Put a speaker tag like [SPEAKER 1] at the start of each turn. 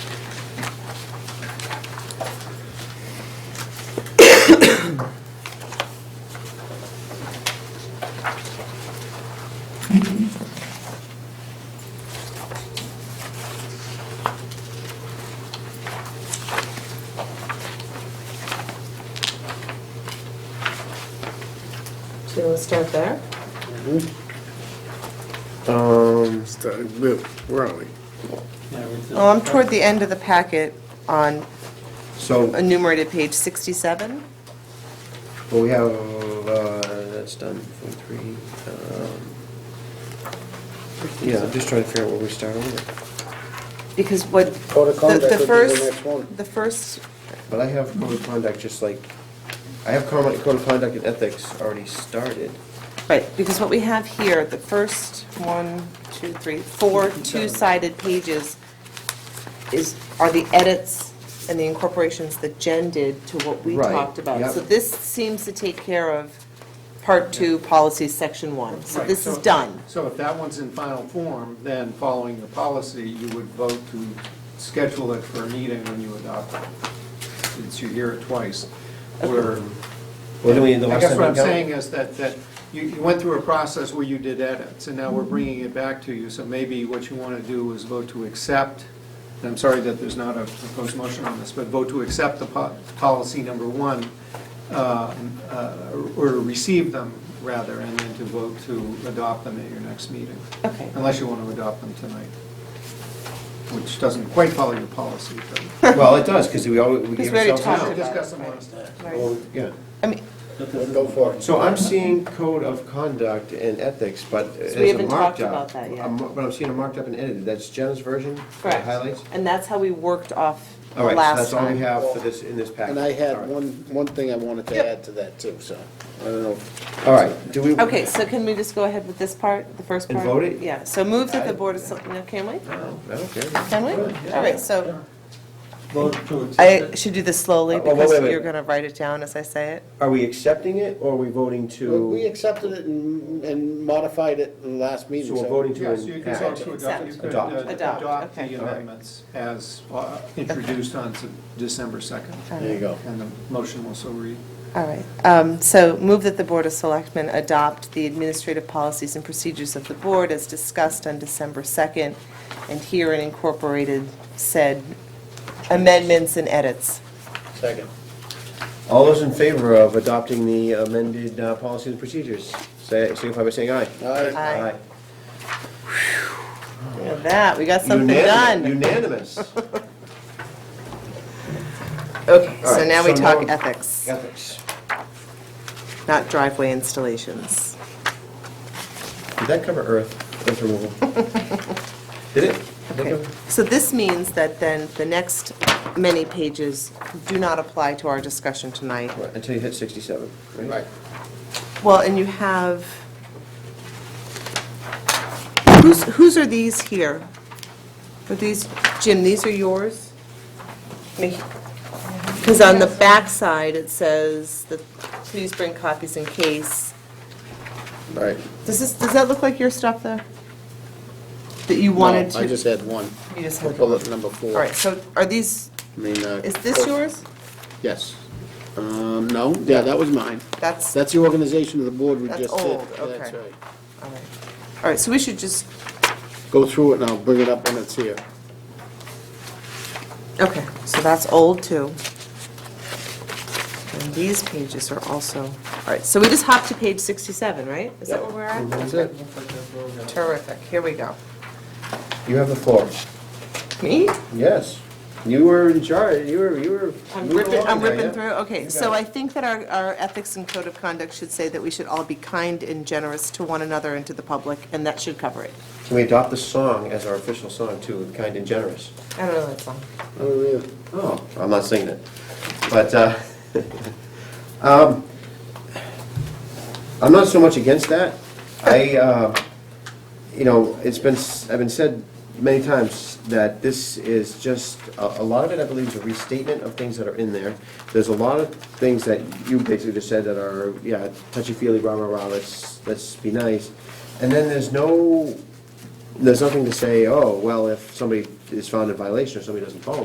[SPEAKER 1] So let's start there.
[SPEAKER 2] Um,
[SPEAKER 3] Started with, where are we?
[SPEAKER 4] Oh, I'm toward the end of the packet on
[SPEAKER 2] so,
[SPEAKER 4] enumerated page 67.
[SPEAKER 2] well, we have, uh, that's done, point three, um, yeah, I'm just trying to figure out where we start over.
[SPEAKER 4] Because what,
[SPEAKER 3] Code of
[SPEAKER 4] the
[SPEAKER 3] conduct would be
[SPEAKER 4] the
[SPEAKER 3] the next one.
[SPEAKER 4] first, the first,
[SPEAKER 2] But I have code of conduct, just like, I have code code of conduct and ethics already started.
[SPEAKER 4] right, because what we have here, the first one, two, three, four two-sided pages is, are the edits and the incorporations that Jen did to what we
[SPEAKER 2] Right,
[SPEAKER 4] talked about.
[SPEAKER 2] yep.
[SPEAKER 4] So this seems to take care of Part 2, Policy Section 1. So
[SPEAKER 5] Right,
[SPEAKER 4] this is done.
[SPEAKER 5] So if that one's in final form, then following the policy, you would vote to schedule it for a meeting when you adopt it, since you hear it twice. Where,
[SPEAKER 2] Well, then we, the
[SPEAKER 5] I
[SPEAKER 2] last
[SPEAKER 5] guess
[SPEAKER 2] time
[SPEAKER 5] what I'm
[SPEAKER 2] we got-
[SPEAKER 5] saying is that, that you, you went through a process where you did edits, and now
[SPEAKER 4] Mm-hmm.
[SPEAKER 5] we're bringing it back to you, so maybe what you want to do is vote to accept, and I'm sorry that there's not a proposed motion on this, but vote to accept the po- policy number one, uh, uh, or to receive them, rather, and then to vote to adopt them at your next meeting,
[SPEAKER 4] Okay.
[SPEAKER 5] unless you want to adopt them tonight, which doesn't quite follow your policy, but
[SPEAKER 2] Well, it does, because we always, we
[SPEAKER 4] Because
[SPEAKER 2] gave
[SPEAKER 4] we already
[SPEAKER 2] ourselves.
[SPEAKER 4] talked
[SPEAKER 5] we'll
[SPEAKER 4] about it.
[SPEAKER 5] discuss them
[SPEAKER 4] right.
[SPEAKER 5] last time.
[SPEAKER 2] Well, Yeah.
[SPEAKER 4] I mean,
[SPEAKER 3] Go for it.
[SPEAKER 2] So I'm seeing code of conduct and ethics, but as
[SPEAKER 4] we
[SPEAKER 2] a
[SPEAKER 4] haven't
[SPEAKER 2] marked
[SPEAKER 4] talked about
[SPEAKER 2] up.
[SPEAKER 4] that yet.
[SPEAKER 2] I'm- But I'm seeing a marked up and edited, that's Jen's version, the
[SPEAKER 4] Correct.
[SPEAKER 2] highlights?
[SPEAKER 4] And that's how we worked off the
[SPEAKER 2] All right, so
[SPEAKER 4] last
[SPEAKER 2] that's all we
[SPEAKER 4] time.
[SPEAKER 2] have for this, in this package.
[SPEAKER 3] And I
[SPEAKER 2] All
[SPEAKER 3] had
[SPEAKER 2] right.
[SPEAKER 3] one, one thing I wanted to
[SPEAKER 4] Yep.
[SPEAKER 3] add to that too, so, I don't know.
[SPEAKER 2] All right, do we?
[SPEAKER 4] Okay, so can we just go ahead with this part, the first
[SPEAKER 2] And
[SPEAKER 4] part?
[SPEAKER 2] vote it?
[SPEAKER 4] Yeah, so move that the Board of, Sel- no, can we?
[SPEAKER 2] No, I don't care.
[SPEAKER 4] Can we? All right, so
[SPEAKER 6] Vote to accept
[SPEAKER 4] I
[SPEAKER 6] it.
[SPEAKER 4] should do this slowly
[SPEAKER 2] Uh, well,
[SPEAKER 4] because
[SPEAKER 2] wait, wait, wait.
[SPEAKER 4] you're going to write it down as I say it.
[SPEAKER 2] Are we accepting it, or are we voting to?
[SPEAKER 3] We accepted it and and modified it in the last
[SPEAKER 2] So
[SPEAKER 3] meeting, so.
[SPEAKER 2] we're voting to
[SPEAKER 5] Yes, you
[SPEAKER 2] an
[SPEAKER 5] could vote to
[SPEAKER 2] act.
[SPEAKER 5] adopt, you could uh,
[SPEAKER 2] Adopt.
[SPEAKER 4] Adopt,
[SPEAKER 5] adopt
[SPEAKER 4] okay.
[SPEAKER 5] the
[SPEAKER 2] All right.
[SPEAKER 5] amendments as uh, introduced on Se- December 2nd.
[SPEAKER 3] There you go.
[SPEAKER 5] And the motion will so read.
[SPEAKER 4] All right, um, so move that the Board of Selectmen adopt the administrative policies and procedures of the board as discussed on December 2nd and herein incorporated said amendments and edits.
[SPEAKER 3] Second.
[SPEAKER 2] All those in favor of adopting the amended uh, policies and procedures, say, signify by saying aye.
[SPEAKER 3] Aye.
[SPEAKER 4] Aye. Look at that, we got something
[SPEAKER 2] Unanimous-
[SPEAKER 4] done.
[SPEAKER 2] Unanimous.
[SPEAKER 4] Okay,
[SPEAKER 2] All
[SPEAKER 4] so
[SPEAKER 2] right,
[SPEAKER 4] now we
[SPEAKER 2] so
[SPEAKER 4] talk
[SPEAKER 2] now-
[SPEAKER 4] ethics,
[SPEAKER 2] Ethics.
[SPEAKER 4] not driveway installations.
[SPEAKER 2] Did that cover earth, earth removal? Did it? Did that
[SPEAKER 4] Okay,
[SPEAKER 2] cover-
[SPEAKER 4] so this means that then the next many pages do not apply to our discussion tonight.
[SPEAKER 2] Right, Until you hit sixty-seven, right?
[SPEAKER 3] Right.
[SPEAKER 4] Well, and you have, whose, whose are these here? Are these, Jim, these are yours? Because on the backside, it says that, please bring copies in case.
[SPEAKER 3] Right.
[SPEAKER 4] Does this, does that look like your stuff there? That you wanted
[SPEAKER 3] No,
[SPEAKER 4] to?
[SPEAKER 3] I just had one.
[SPEAKER 4] You just had
[SPEAKER 3] Bullet number four.
[SPEAKER 4] All right, so are these,
[SPEAKER 3] I mean, uh.
[SPEAKER 4] is this yours?
[SPEAKER 3] Yes. Um, no, yeah, that was mine.
[SPEAKER 4] That's, all
[SPEAKER 3] That's the organization of the board we
[SPEAKER 4] That's
[SPEAKER 3] just did.
[SPEAKER 4] old, okay.
[SPEAKER 3] That's right.
[SPEAKER 4] right. All right, so we should just,
[SPEAKER 3] Go through it and I'll bring it up when it's here.
[SPEAKER 4] okay, so that's old too. And these pages are also, all right, so we just hopped to page 67, right? Is that where we're at?
[SPEAKER 2] That's it.
[SPEAKER 4] Terrific, here we go.
[SPEAKER 2] You have the floor.
[SPEAKER 4] Me?
[SPEAKER 2] Yes. You were in charge, you were, you were.
[SPEAKER 4] I'm
[SPEAKER 2] moving
[SPEAKER 4] ripping, I'm
[SPEAKER 2] along there,
[SPEAKER 4] ripping
[SPEAKER 2] yeah.
[SPEAKER 4] through, okay, so I think that our, our ethics and code of conduct should say that we should all be kind and generous to one another and to the public, and that should cover it.
[SPEAKER 2] Can we adopt the song as our official song too, kind and generous?
[SPEAKER 4] I don't know that song.
[SPEAKER 3] Oh, yeah.
[SPEAKER 2] Oh, I'm not singing it. But, uh, um, I'm not so much against that. I, uh, you know, it's been, s- I've been said many times that this is just, a a lot of it, I believe, is a restatement of things that are in there. There's a lot of things that you basically just said that are, yeah, touchy-feely, rah-rah-rah, let's, let's be nice. And then there's no, there's nothing to say, oh, well, if somebody is found in violation or somebody doesn't follow